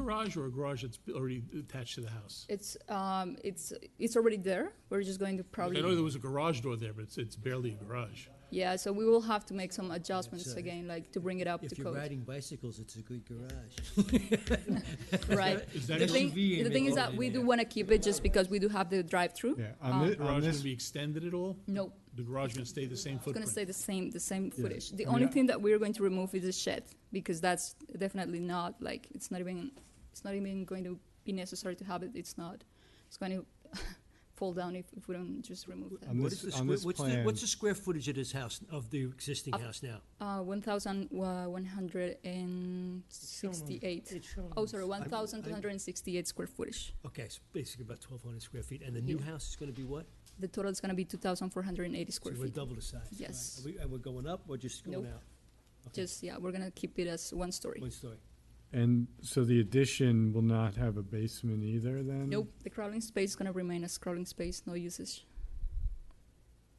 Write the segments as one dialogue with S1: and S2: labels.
S1: garage or a garage that's already attached to the house?
S2: It's, um, it's, it's already there. We're just going to
S1: I
S2: probably,
S1: know there was a garage door there, but it's, it's barely a garage.
S2: yeah, so we will have to make some adjustments
S3: uh,
S2: again, like to bring it up to
S3: If you're
S2: code.
S3: riding bicycles, it's a good garage.
S2: Right.
S1: Is that
S2: The
S1: an
S2: thing,
S4: SUV
S2: the
S4: in
S2: thing
S4: it
S2: is that
S4: already
S2: we do
S4: there.
S2: want to keep it just because we do have the drive-through. Um,
S5: Yeah, on this, on
S1: Garage
S5: this,
S1: gonna be extended at all?
S2: No,
S1: The garage gonna stay the same
S2: it's going
S1: footprint?
S2: to stay the same, the same footage. The
S5: I mean,
S2: only
S5: I-
S2: thing that we're going to remove is the shed because that's definitely not like, it's not even, it's not even going to be necessary to have it. It's not, it's going to fall down if, if we don't just remove
S5: on
S2: that.
S3: What is
S5: this,
S3: the
S5: on
S3: square,
S5: this
S3: what's the,
S5: plan,
S3: what's the square footage of this house, of the existing house now?
S2: Uh, one thousand one hundred and sixty-eight. Oh, sorry, one thousand two hundred and sixty-eight square footage.
S3: Okay, it's basically about twelve hundred square feet, and the new
S2: Yeah.
S3: house is gonna be what?
S2: The total is going to be two thousand four hundred and eighty
S3: So
S2: square
S3: we're
S2: feet.
S3: double the size. right.
S2: Yes.
S3: Are we- And we're going up or just going
S2: Nope.
S3: out? Okay,
S2: Just, yeah, we're going to keep it as one story.
S3: One story.
S5: and so the addition will not have a basement either then?
S2: Nope, the crawling space is gonna remain as crawling space, no usage.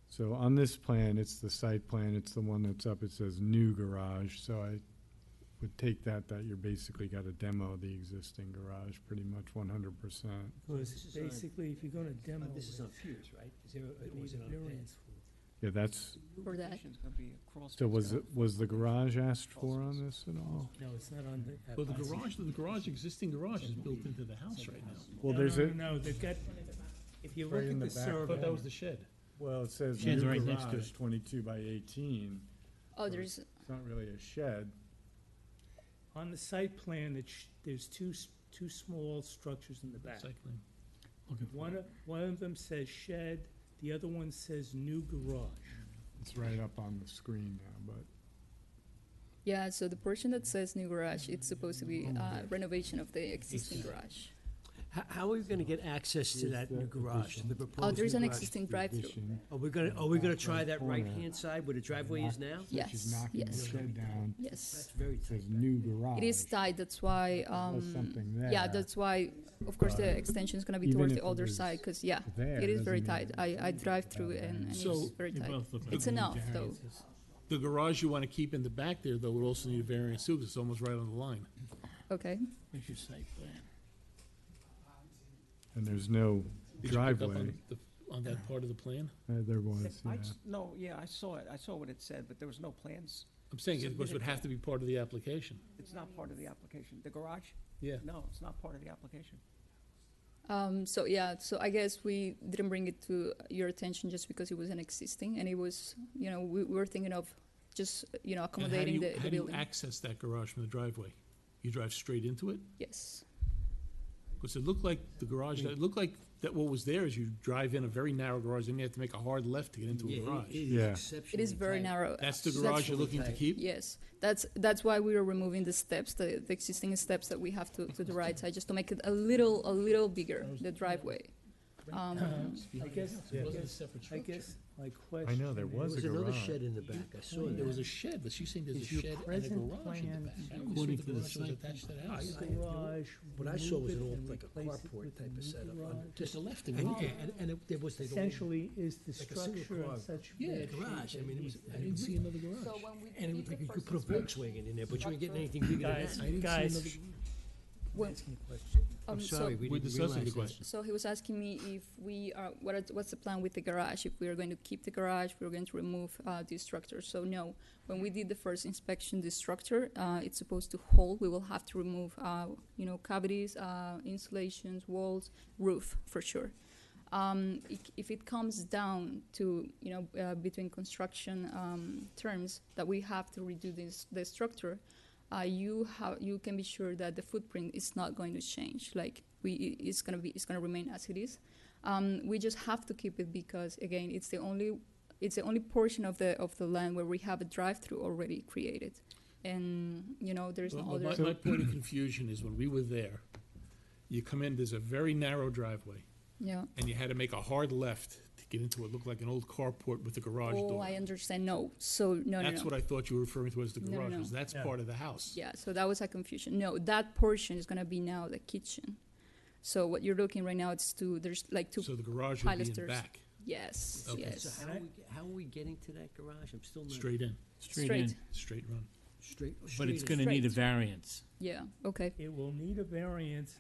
S5: So on this plan, it's the site plan, it's the one that's up, it says new garage, so I would take that, that you're basically got a demo of the existing garage, pretty much one hundred percent.
S3: Well,
S4: Because
S3: this is on-
S4: basically, if you're gonna
S3: Uh,
S4: demo it,
S3: This is on
S4: it
S3: Piers, right? Is there, a- or
S4: needs
S3: is it
S4: a
S3: on a pad?
S4: variance for it.
S5: Yeah, that's,
S2: For that.
S5: so was, it- was the garage asked for on this at all?
S4: No, it's not on the.
S1: Well, the garage, the garage, existing garage is built into the house right now.
S5: Well,
S4: No,
S5: there's
S4: no,
S5: a,
S4: No, no, they've got, if you
S5: Right
S4: look
S5: in
S4: at
S5: the
S4: the
S5: back.
S1: I thought that
S4: survey,
S1: was the shed.
S5: well, it says
S4: Shed's
S5: new
S4: right next to
S5: garage,
S4: it.
S5: twenty-two by eighteen,
S2: Oh, there's,
S5: it's not really a shed.
S4: on the site plan, it sh there's two, s- two small structures in the back.
S1: Cycling. Looking for
S4: One,
S1: it.
S4: of- one of them says shed, the other one says new garage.
S5: It's right up on the screen now, but.
S2: yeah, so the portion that says new garage, it's supposed to be uh, renovation of the existing garage.
S3: How, how are we gonna get access to
S5: Here's
S3: that new
S5: the
S3: garage,
S5: addition.
S3: the proposed
S2: Oh, there's
S3: new
S2: an
S3: garage?
S2: existing
S5: the
S2: drive-through.
S5: addition,
S3: Are we gonna,
S5: in the
S3: are we
S5: back
S3: gonna
S5: right
S3: try that
S5: corner.
S3: right-hand side where the driveway is now?
S5: Which is
S2: Yes,
S5: knocking the
S2: yes.
S5: shed down,
S2: Yes,
S3: That's very tight.
S5: says new garage.
S2: it is tight, that's why,
S5: Unless
S2: um,
S5: something there.
S2: yeah, that's why, of course, the
S5: But
S2: extension is gonna be
S5: even
S2: towards
S5: if
S2: the
S5: it
S2: other
S5: was
S2: side, cause yeah,
S5: there
S2: it is
S5: doesn't
S2: very
S5: mean
S2: tight.
S5: it's
S2: I, I
S5: without
S2: drive through
S5: that.
S2: and, and it's
S1: So-
S2: very
S1: You're
S2: tight.
S1: both looking
S2: It's
S1: at
S2: enough,
S1: the
S2: though.
S1: The garage you want to keep in the back there, though, would also need a variance too, because it's almost right on the line.
S2: Okay,
S4: Where's your site plan?
S5: And there's no
S1: Did you pick up on
S5: driveway,
S1: the- On that part of the plan?
S5: Uh, there was, yeah.
S6: No, yeah, I saw it, I saw what it said, but there was no plans,
S1: I'm saying it was-
S6: Submitted
S1: would have to be part of the application.
S6: it's not part of the application, the garage,
S1: Yeah.
S6: no, it's not part of the application.
S2: um, so yeah, so I guess we didn't bring it to your attention just because it was an existing and it was, you know, we we were thinking of just, you
S1: And
S2: know,
S1: how do
S2: accommodating
S1: you-
S2: the the
S1: How do you
S2: building.
S1: access that garage from the driveway? You drive straight into it?
S2: Yes.
S1: Because it looked like the garage, it looked like that what was there is you drive in a very narrow garage, then you have to make a hard left to get into a
S3: Yeah, it-
S1: garage.
S3: It is
S5: Yeah.
S2: It
S3: exceptionally
S2: is very
S3: tight.
S2: narrow.
S1: That's the
S2: That's
S1: garage you're
S3: really
S1: looking to
S3: tight.
S1: keep?
S2: Yes, that's, that's why we are removing the steps, the, the existing steps that we have to, to the right side, just to make it a little, a little bigger, the driveway. Um,
S4: I guess,
S1: It
S4: I
S1: wasn't a
S4: guess,
S1: separate
S4: I
S1: structure.
S4: guess my
S5: I
S4: question.
S5: know, there
S3: There
S5: was a
S3: was another
S5: garage.
S3: shed in the back, I saw
S1: There
S3: that.
S1: was a shed, but she's saying there's a
S4: Is your
S1: shed and a
S4: present
S1: garage in the back.
S4: plan
S1: I always thought
S4: according
S1: the
S4: to the
S1: garage was
S4: site
S1: attached to the
S4: I-
S1: house.
S3: I-
S4: Garage.
S3: What I saw was an
S4: remove it
S3: old,
S4: and
S3: like a
S4: replace it
S3: carport
S4: with
S3: type
S4: new
S3: of setup.
S4: garage.
S1: There's a left and
S3: And,
S1: right.
S3: and, and it- there was like a little
S4: Essentially, is the
S3: Like a single
S4: structure
S3: car.
S4: of such.
S1: Yeah,
S4: bad shape
S3: garage, I
S4: that
S3: mean, it
S4: it
S3: was-
S4: needs-
S1: I didn't see another garage.
S3: And it looked like you could put a Volkswagen in there, but you ain't getting anything bigger than
S4: Guys,
S3: that.
S4: guys,
S2: when-
S4: asking a question.
S2: um,
S3: I'm
S2: so-
S3: sorry, we
S1: We're
S3: didn't realize
S1: discussing the
S3: that.
S1: question.
S2: So he was asking me if we are, what are, what's the plan with the garage? If we are going to keep the garage, we're going to remove uh, the structure. So no, when we did the first inspection, the structure, uh, it's supposed to hold. We will have to remove, uh, you know, cavities, uh, insulations, walls, roof for sure. Um, i- if it comes down to you know uh, between construction um, terms that we have to redo this the structure, uh, you have you can be sure that the footprint is not going to change. Like we i- it's gonna be it's gonna remain as it is. Um, we just have to keep it because again it's the only it's the only portion of the of the land where we have a drive-through already created, and you know there's
S1: Well,
S2: no
S1: well,
S2: other.
S1: My, my point of confusion is when we were there, you come in, there's a very narrow driveway,
S2: yeah.
S1: and you had to make a hard left to get into what looked like an old carport with a garage
S2: Oh,
S1: door.
S2: I understand. No, so no, no,
S1: That's
S2: no.
S1: what I thought you were referring to as the
S2: No, no,
S1: garage,
S2: no.
S1: because that's
S4: Yeah.
S1: part of the house.
S2: Yeah, so that was a confusion. No, that portion is gonna be now the kitchen. So what you're looking right now, it's two, there's like two,
S1: So the garage would be in
S2: Pilasters.
S1: back,
S2: yes,
S1: Okay.
S3: So
S2: yes.
S3: how are we, how are we getting to that garage? I'm still not.
S1: straight in,
S2: Straight,
S1: straight run.
S7: straight, straight.
S3: But it's
S7: as-
S3: gonna need a
S2: Straight.
S3: variance.
S2: Yeah, okay.
S4: It will need a variance